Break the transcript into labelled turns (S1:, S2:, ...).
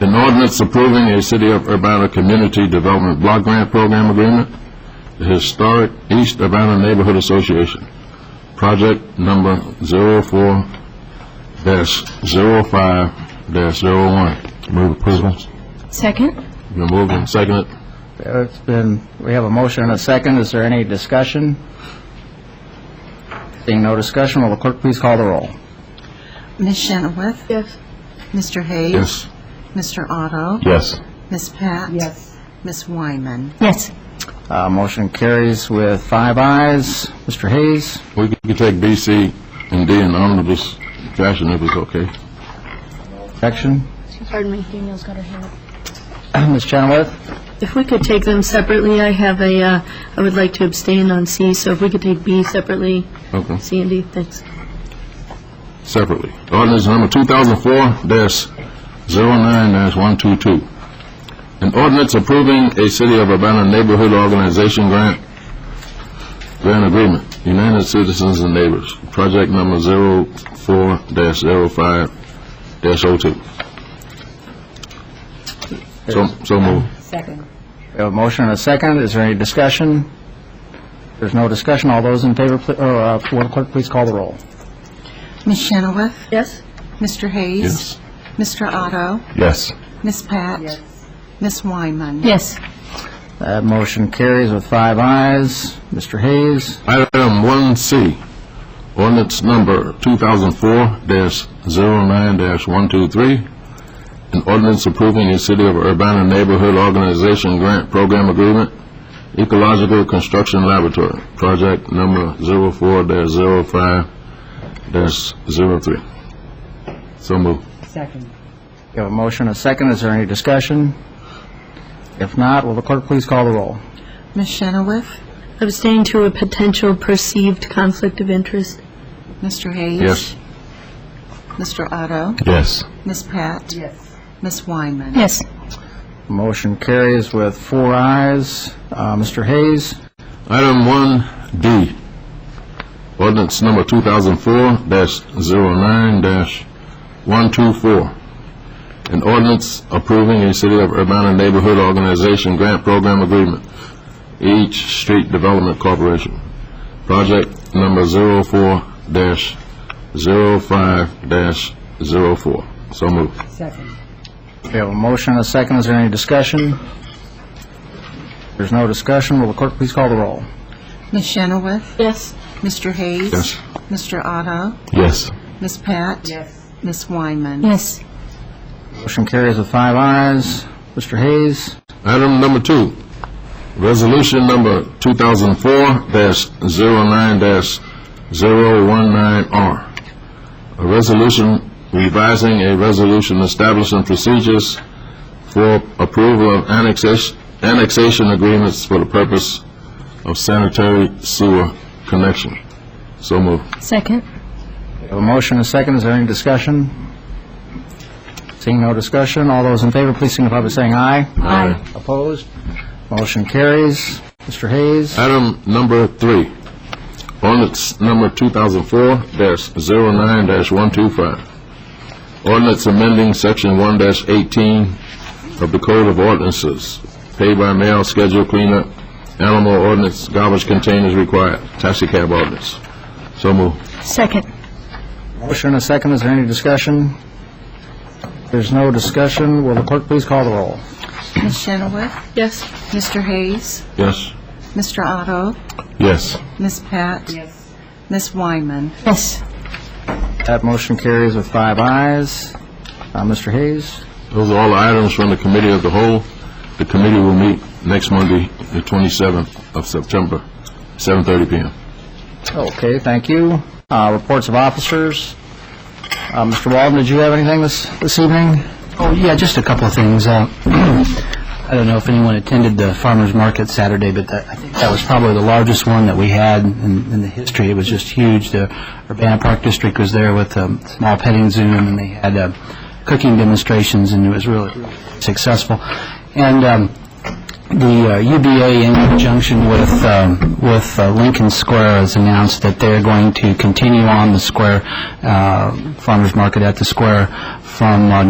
S1: An ordinance approving a City of Urbana Community Development Block Grant Program Agreement, the Historic East Urbana Neighborhood Association, project number 04-05-01. Move approval.
S2: Second?
S1: Been moved and seconded.
S3: It's been, we have a motion and a second. Is there any discussion? Seeing no discussion, will the clerk please call the roll?
S4: Ms. Chenoweth?
S2: Yes.
S4: Mr. Hayes?
S1: Yes.
S4: Mr. Otto?
S1: Yes.
S4: Ms. Pat? Yes. Ms. Wyman?
S2: Yes.
S3: Uh, Motion carries with five ayes. Mr. Hayes?
S1: We can take B, C, and D in omnibus fashion if it's okay.
S3: Objection?
S2: Pardon me, Danielle's got her hand up.
S3: Ms. Chenoweth?
S5: If we could take them separately, I have a, uh, I would like to abstain on C, so if we could take B separately,
S1: Okay.
S5: C and D, thanks.
S1: separately. Ordinance number 2004-09-122. An ordinance approving a City of Urbana Neighborhood Organization Grant, grant agreement, United Citizens and Neighbors, project number 04-05-02. So, so moved.
S3: We have a motion and a second. Is there any discussion? There's no discussion. All those in favor, pl- or, uh, will the clerk please call the roll?
S4: Ms. Chenoweth?
S5: Yes?
S4: Mr. Hayes?
S1: Yes.
S4: Mr. Otto?
S1: Yes.
S4: Ms. Pat? Yes. Ms. Wyman?
S2: Yes.
S3: That motion carries with five ayes. Mr. Hayes?
S1: Item 1C, ordinance number 2004-09-123, an ordinance approving a City of Urbana Neighborhood Organization Grant Program Agreement, Ecological Construction Laboratory, project number 04-05-03. So moved.
S3: We have a motion and a second. Is there any discussion? If not, will the clerk please call the roll?
S4: Ms. Chenoweth?
S5: Abstain to a potential perceived conflict of interest.
S4: Mr. Hayes?
S1: Yes.
S4: Mr. Otto?
S1: Yes.
S4: Ms. Pat? Yes. Ms. Wyman?
S2: Yes.
S3: Motion carries with four ayes. Uh, Mr. Hayes,
S1: Item 1D, ordinance number 2004-09-124, an ordinance approving a City of Urbana Neighborhood Organization Grant Program Agreement, H Street Development Corporation, project number 04-05-04. So moved.
S3: we have a motion and a second. Is there any discussion? There's no discussion. Will the clerk please call the roll?
S4: Ms. Chenoweth?
S5: Yes.
S4: Mr. Hayes?
S1: Yes.
S4: Mr. Otto?
S1: Yes.
S4: Ms. Pat? Yes. Ms. Wyman?
S2: Yes.
S3: Motion carries with five ayes. Mr. Hayes,
S1: Item number two, resolution number 2004-09-019R. A resolution revising a resolution establishing procedures for approval of annexation, annexation agreements for the purpose of sanitary sewer connection. So moved.
S2: Second?
S3: we have a motion and a second. Is there any discussion? Seeing no discussion, all those in favor, please signify by saying aye.
S1: Aye.
S3: Opposed? Motion carries. Mr. Hayes,
S1: Item number three, ordinance number 2004-09-125. Ordinance amending section 1-18 of the Code of Ordinances, pay-by-mail schedule cleanup, animal ordinance, garbage containers required, taxi cab ordinance. So moved.
S2: Second?
S3: motion and a second. Is there any discussion? There's no discussion. Will the clerk please call the roll?
S4: Ms. Chenoweth?
S5: Yes.
S4: Mr. Hayes?
S1: Yes?
S4: Mr. Otto?
S1: Yes.
S4: Ms. Pat? Yes. Ms. Wyman?
S2: Yes.
S3: That motion carries with five ayes. Uh, Mr. Hayes,
S1: Those are all the items from the Committee of the Whole. The committee will meet next Monday, the 27th of September, 7:30 PM.
S3: okay, thank you. Uh, Reports of officers. Uh, Mr. Walden, did you have anything this, this evening?
S6: Oh, yeah, just a couple of things. Uh, I don't know if anyone attended the farmer's market Saturday, but that, I think that was probably the largest one that we had in, in the history. It was just huge. The Urbana Park District was there with a small petting zoo, and they had uh, cooking demonstrations, and it was really successful. And um, the uh, UBA in conjunction with, um, with uh, Lincoln Square has announced that they're going to continue on the square, uh, farmer's market at the square from uh,